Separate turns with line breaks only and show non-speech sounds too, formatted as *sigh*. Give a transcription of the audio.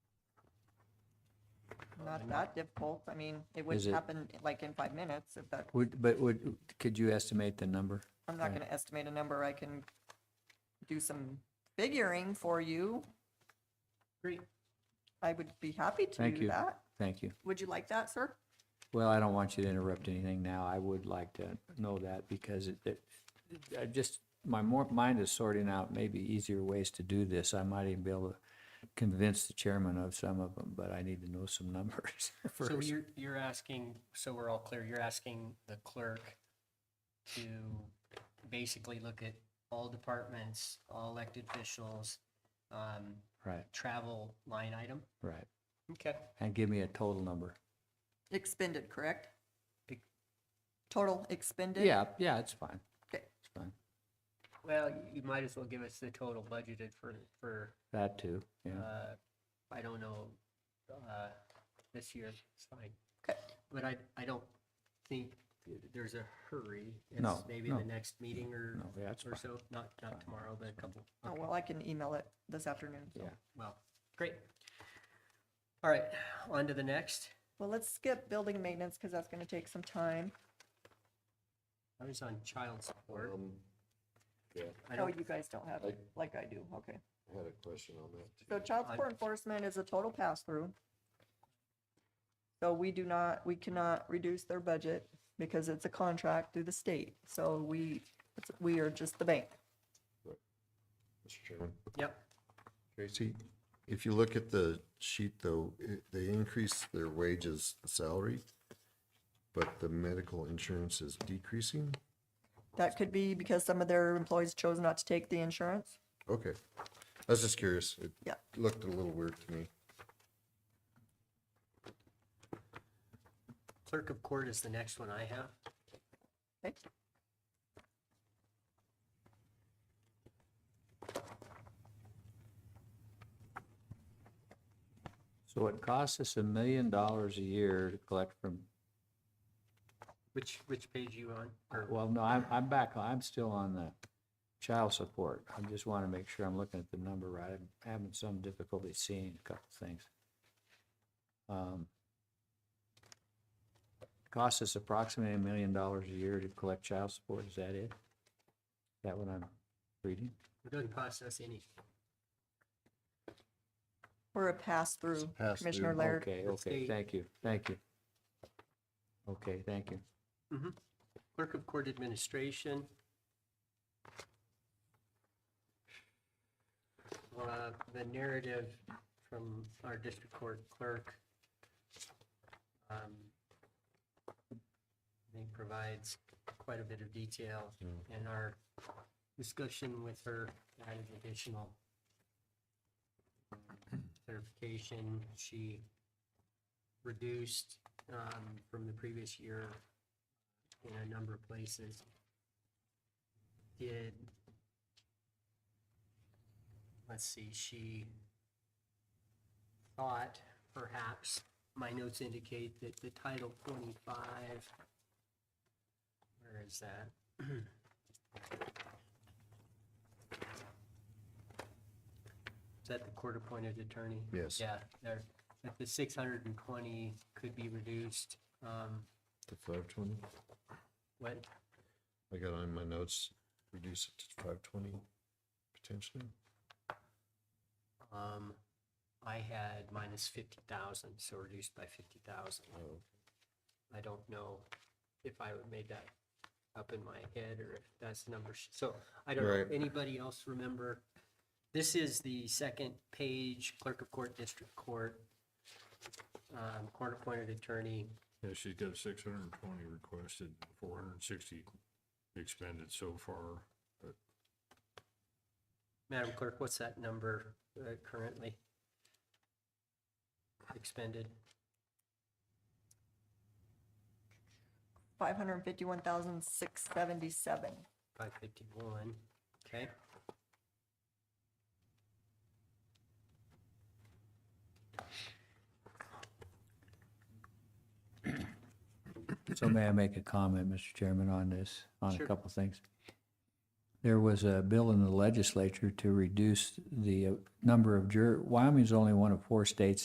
not that difficult. I mean, it would
Um, Is it-
happen like in five minutes if that,
Would, but would, could you estimate the number?
I'm not gonna estimate a number. I can do some figuring for you.
Great.
I would be happy to
Thank
do
you.
that.
Thank you.
Would you like that, sir?
Well, I don't want you to interrupt anything now. I would like to know that because it, it, I just, my more, mind is sorting out maybe easier ways to do this. I might even be able to convince the chairman of some of them, but I need to know some *laughs* numbers
So
first.
you're, you're asking, so we're all clear, you're asking the clerk to basically look at all departments, all elected officials, um,
Right,
travel line item?
right.
Okay.
And give me a total number.
Expended, correct?
Ex-
Total expended?
Yeah, yeah, it's fine.
Okay.
It's fine.
Well, you might as well give us the total budgeted for, for,
That too, yeah.
uh, I don't know, uh, this year, it's fine.
Okay.
But I, I don't think there's a hurry. It's
No,
Maybe
no.
the next meeting or,
No, yeah, it's
or
fine.
so, not, not tomorrow, but a couple.
Oh,
okay.
well, I can email it this afternoon. so.
Yeah.
Well, great. All right, on to the next.
Well, let's skip building maintenance because that's gonna take some time.
I was on child support.
Um, yeah,
I
Oh,
don't,
you guys don't have it like I do. Okay.
I had a question on that.
So child
I-
support enforcement is a total pass-through. So we do not, we cannot reduce their budget because it's a contract through the state. So we, it's- we are just the bank.
Mr. Chairman.
yep,
Tracy, if you look at the sheet though, it- they increased their wages salary, but the medical insurance is decreasing?
That could be because some of their employees chose not to take the insurance.
Okay, I was just curious. It
Yeah.
looked a little weird to me.
clerk of court is the next one I have.
Okay.
So it costs us a million dollars a year to collect from
Which, which page you on? Or-
Well, no, I'm, I'm back, I'm still on the child support. I just want to make sure I'm looking at the number right. I'm having some difficulty seeing a couple things. Um, Costs us approximately a million dollars a year to collect child support, is that it? Is that what I'm reading?
It doesn't cost us anything.
We're a pass-through,
pass-through,
Commissioner Laird.
Okay,
Let's
okay,
see.
thank you, thank you. Okay, thank you.
Clerk of court administration. Uh, The narrative from our district court clerk. um, I think provides quite a bit of detail and our discussion with her added additional um, clarification. She reduced um, from the previous year in a number of places. Did, let's see, she thought perhaps, my notes indicate that the Title 25, where is that? *clears throat* Is that the court-appointed attorney?
Yes.
Yeah, there, that the 620 could be reduced. um,
To five twenty?
What,
I got on my notes, reduce it to five twenty potentially.
Um, I had minus fifty thousand, so reduced by fifty thousand.
Oh,
I don't know if I would made that up in my head or if that's the number. she- So I don't know.
Right.
Anybody else remember? This is the second page, clerk of court, district court, um, court appointed attorney.
Yeah, she's got six hundred and twenty requested, four hundred and sixty expended so far.
Madam Clerk, what's that number uh, currently? Expended?
five hundred and fifty-one thousand, six seventy-seven.
Five fifty-one, okay.
So may I make a comment, Mr. Chairman, on this, on a
Sure.
couple things? There was a bill in the legislature to reduce the uh, number of jur, Wyoming's only one of four states